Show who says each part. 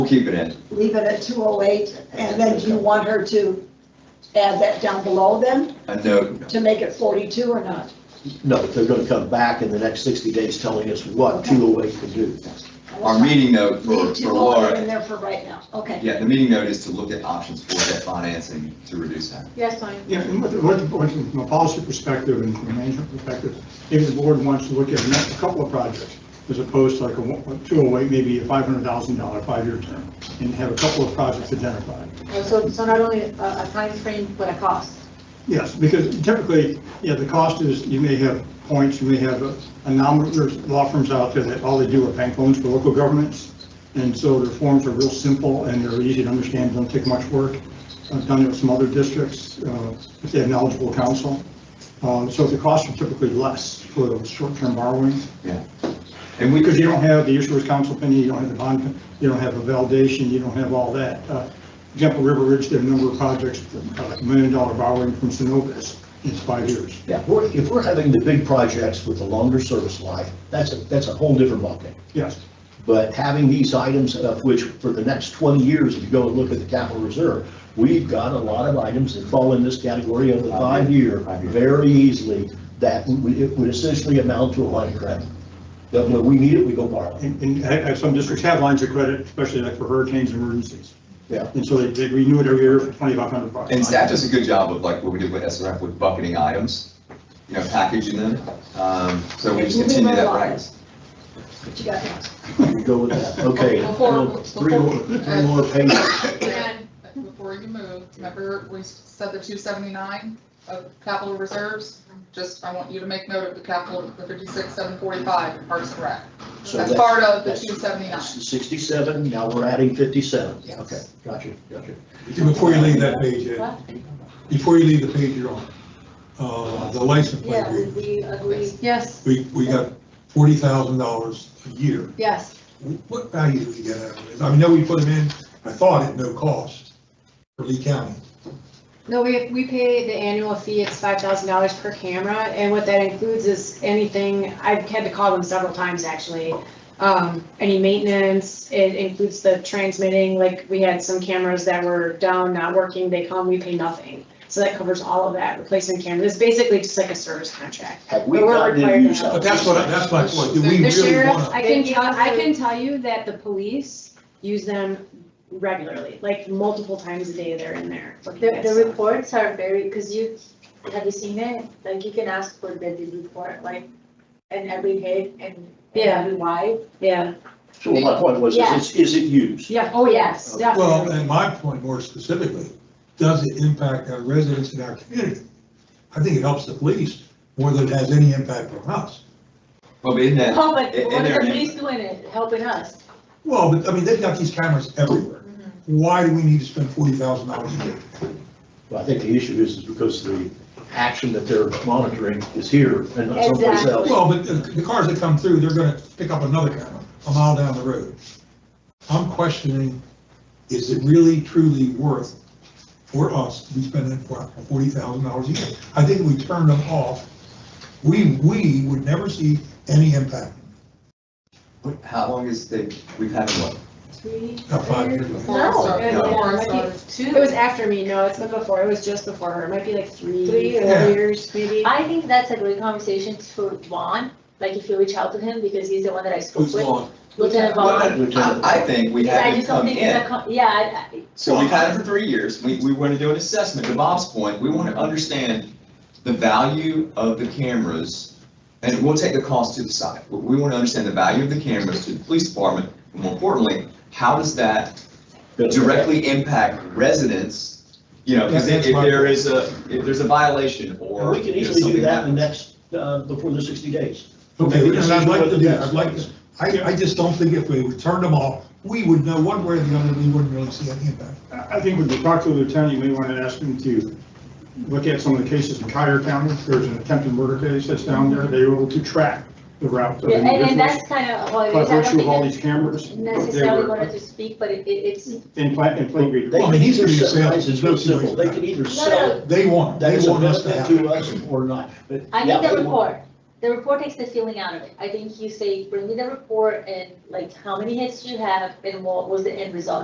Speaker 1: keep it in.
Speaker 2: leave it at two oh eight, and then do you want her to add that down below then,
Speaker 1: A note.
Speaker 2: to make it forty-two or not?
Speaker 3: No, they're gonna come back in the next sixty days telling us what
Speaker 2: Okay.
Speaker 3: two oh eight can do.
Speaker 1: Our meeting note for,
Speaker 2: Leave
Speaker 1: for
Speaker 2: two oh eight in
Speaker 1: Laura,
Speaker 2: there for right now, okay.
Speaker 1: yeah, the meeting note is to look at options for debt financing to reduce that.
Speaker 4: Yes, fine.
Speaker 5: Yeah, and what, what, what, from a policy perspective and from a management perspective, if the board wants to look at a couple of projects, as opposed to like a one- a 208, maybe a $500,000 five-year term, and have a couple of projects identified.
Speaker 4: Oh, So, so not only a, a timeframe, but a cost.
Speaker 5: Yes, because typically, yeah, the cost is, you may have points, you may have a- a nominal, there's law firms out there that all they do are bank loans for local governments. And so their forms are real simple and they're easy to understand, don't take much work. I've done it with some other districts, uh, if they have knowledgeable counsel. Uh, So the costs are typically less for those short-term borrowings.
Speaker 1: And we
Speaker 5: Because
Speaker 1: could,
Speaker 5: you don't have the issuer's council opinion, you don't have the bond, you don't have a validation, you don't have all that. Uh, For Example, River Ridge did a number of projects, uh, like a million dollar borrowing from Synovus in five years.
Speaker 3: If we're, if we're having the big projects with a longer service life, that's a, that's a whole different bucket.
Speaker 5: Yes,
Speaker 3: But having these items of which for the next 20 years, if you go and look at the capital reserve, we've got a lot of items that fall in this category of the five-year very easily that would it would essentially amount to a line of credit. That when we need it, we go borrow.
Speaker 5: and, and I- I- some districts have lines of credit, especially like for hurricanes and emergencies.
Speaker 3: Yeah.
Speaker 5: And so they, they renew it every year for 2,500 bucks.
Speaker 1: and staff does a good job of like what we did with SRF with bucketing items, you know, packaging them. Um, so we just
Speaker 2: Moving
Speaker 1: continue that
Speaker 2: right along.
Speaker 1: practice.
Speaker 2: What you got next?
Speaker 3: We go with that. Okay.
Speaker 6: Before-
Speaker 3: Three more, three more pages.
Speaker 6: Dan, before you move, remember we said the two seventy-nine of capital reserves? Just, I want you to make note of the capital, the fifty-six, seven forty-five, Parks and Rec.
Speaker 3: So
Speaker 6: That's
Speaker 3: that's-
Speaker 6: part of the
Speaker 3: that's-
Speaker 6: two seventy-nine.
Speaker 3: 67, now we're adding 57.
Speaker 6: Yes.
Speaker 3: Okay, got you, got you.
Speaker 7: And Before you leave that page, Ed, before you leave the page you're on, uh, the license plate
Speaker 2: Yeah, we,
Speaker 7: agreement,
Speaker 2: we agree,
Speaker 4: Yes,
Speaker 7: we, we got forty thousand dollars a year.
Speaker 4: yes.
Speaker 7: What value do we get out of this? I know we put them in, I thought at no cost for Lee County.
Speaker 4: No, we, we pay the annual fee, it's five thousand dollars per camera, and what that includes is anything, I've had to call them several times actually. Um, any maintenance, it includes the transmitting, like we had some cameras that were down, not working, they come, we pay nothing. So that covers all of that, replacement cameras, it's basically just like a service contract.
Speaker 3: Have we
Speaker 4: But we're
Speaker 3: gotten
Speaker 4: required
Speaker 3: to
Speaker 4: to
Speaker 3: use?
Speaker 4: have-
Speaker 7: But that's what, I- that's my point, do we
Speaker 4: The
Speaker 7: really
Speaker 4: sheriff,
Speaker 7: want
Speaker 4: I can tell, I can tell you that the police use them regularly, like multiple times a day they're in there. looking
Speaker 8: The,
Speaker 4: at
Speaker 8: the
Speaker 4: stuff.
Speaker 8: reports are very, because you, have you seen it? Like, you can ask for the the report, like, and every hit and and
Speaker 4: Yeah.
Speaker 8: every wide.
Speaker 4: Yeah,
Speaker 3: So my point was,
Speaker 8: Yeah.
Speaker 3: is, is it used?
Speaker 4: yeah, oh, yes,
Speaker 7: to?
Speaker 4: definitely.
Speaker 7: Well, and my point more specifically, does it impact our residents in our community? I think it helps the police more than it has any impact on us.
Speaker 1: Well, but in that,
Speaker 8: Oh, but
Speaker 1: in- in
Speaker 8: what are the
Speaker 1: there,
Speaker 8: police doing it, helping us?
Speaker 7: Well, but, I mean, they've got these cameras everywhere. Why do we need to spend forty thousand dollars a year?
Speaker 3: Well, I think the issue is, is because the action that they're monitoring is here and not someplace
Speaker 8: Exactly.
Speaker 3: else.
Speaker 7: Well, but the- the cars that come through, they're gonna pick up another camera a mile down the road. I'm questioning, is it really truly worth for us to be spending forty thousand dollars a year? I think if we turn them off, we, we would never see any impact.
Speaker 1: what- how long is the, we've had one?
Speaker 8: Three,
Speaker 7: About five
Speaker 8: four-
Speaker 7: years ago.
Speaker 8: No,
Speaker 6: Forest,
Speaker 4: yeah,
Speaker 6: uh,
Speaker 4: yeah,
Speaker 6: forest,
Speaker 4: might be-
Speaker 6: uh,
Speaker 8: two.
Speaker 4: It was after me, no, it's been before, it was just before her, it might be like three, four
Speaker 8: Three or-
Speaker 4: years, maybe.
Speaker 8: I think that's a great conversation for Vaughn, like, if you reach out to him, because he's the one that I spoke
Speaker 7: Who's
Speaker 8: with.
Speaker 7: long?
Speaker 8: Lieutenant Vaughn.
Speaker 3: Lieutenant.
Speaker 1: I, I think we
Speaker 8: Because I
Speaker 1: had it
Speaker 8: just don't
Speaker 1: come
Speaker 8: think it's a
Speaker 1: in.
Speaker 8: con- Yeah, I- I-
Speaker 1: So we've had it for three years. We, we want to do an assessment. To Bob's point, we want to understand the value of the cameras. And we'll take the cost to the side. We- We want to understand the value of the cameras to the police department. and More importantly, how does that directly impact residents? You know, because if
Speaker 7: That's my-
Speaker 1: there is a, if there's a violation
Speaker 3: And
Speaker 1: or.
Speaker 3: we
Speaker 1: you
Speaker 3: can
Speaker 1: know,
Speaker 3: easily do
Speaker 1: something
Speaker 3: that in the
Speaker 1: happens.
Speaker 3: next, uh, before the 60 days.
Speaker 7: Okay,
Speaker 3: Make a
Speaker 7: and I'd like
Speaker 3: decision
Speaker 7: to do
Speaker 3: whether
Speaker 7: that, I'd like to, I, I just don't think if we would turn them off, we would know one way or the other, we wouldn't really see any impact.
Speaker 5: I I think when you talk to the lieutenant, you may want to ask him to look at some of the cases in Cuyahoga County. There's an attempted murder case that's down there. They were able to track the route of
Speaker 8: yeah, and, and
Speaker 5: individuals
Speaker 8: that's kind of, well,
Speaker 5: by
Speaker 8: I don't
Speaker 5: virtue of all
Speaker 8: think
Speaker 5: these cameras.
Speaker 8: it's
Speaker 5: They
Speaker 8: necessarily
Speaker 5: were
Speaker 8: wanted to speak, but it, it- it's,
Speaker 5: in pla- in plate reading.
Speaker 3: They
Speaker 7: Well, I
Speaker 3: can
Speaker 7: mean,
Speaker 3: either
Speaker 7: he's gonna
Speaker 3: sell,
Speaker 7: sell-
Speaker 3: it's real simple, they can either sell it,
Speaker 7: They want,
Speaker 3: that
Speaker 7: they
Speaker 3: is a
Speaker 7: want us to
Speaker 3: benefit
Speaker 7: have. it.
Speaker 3: to us or not. But
Speaker 8: I
Speaker 3: yeah,
Speaker 8: think the
Speaker 3: they want-
Speaker 8: report, the report takes the feeling out of it. I think you say, bring me the report and like, how many hits did you have and what was the end result?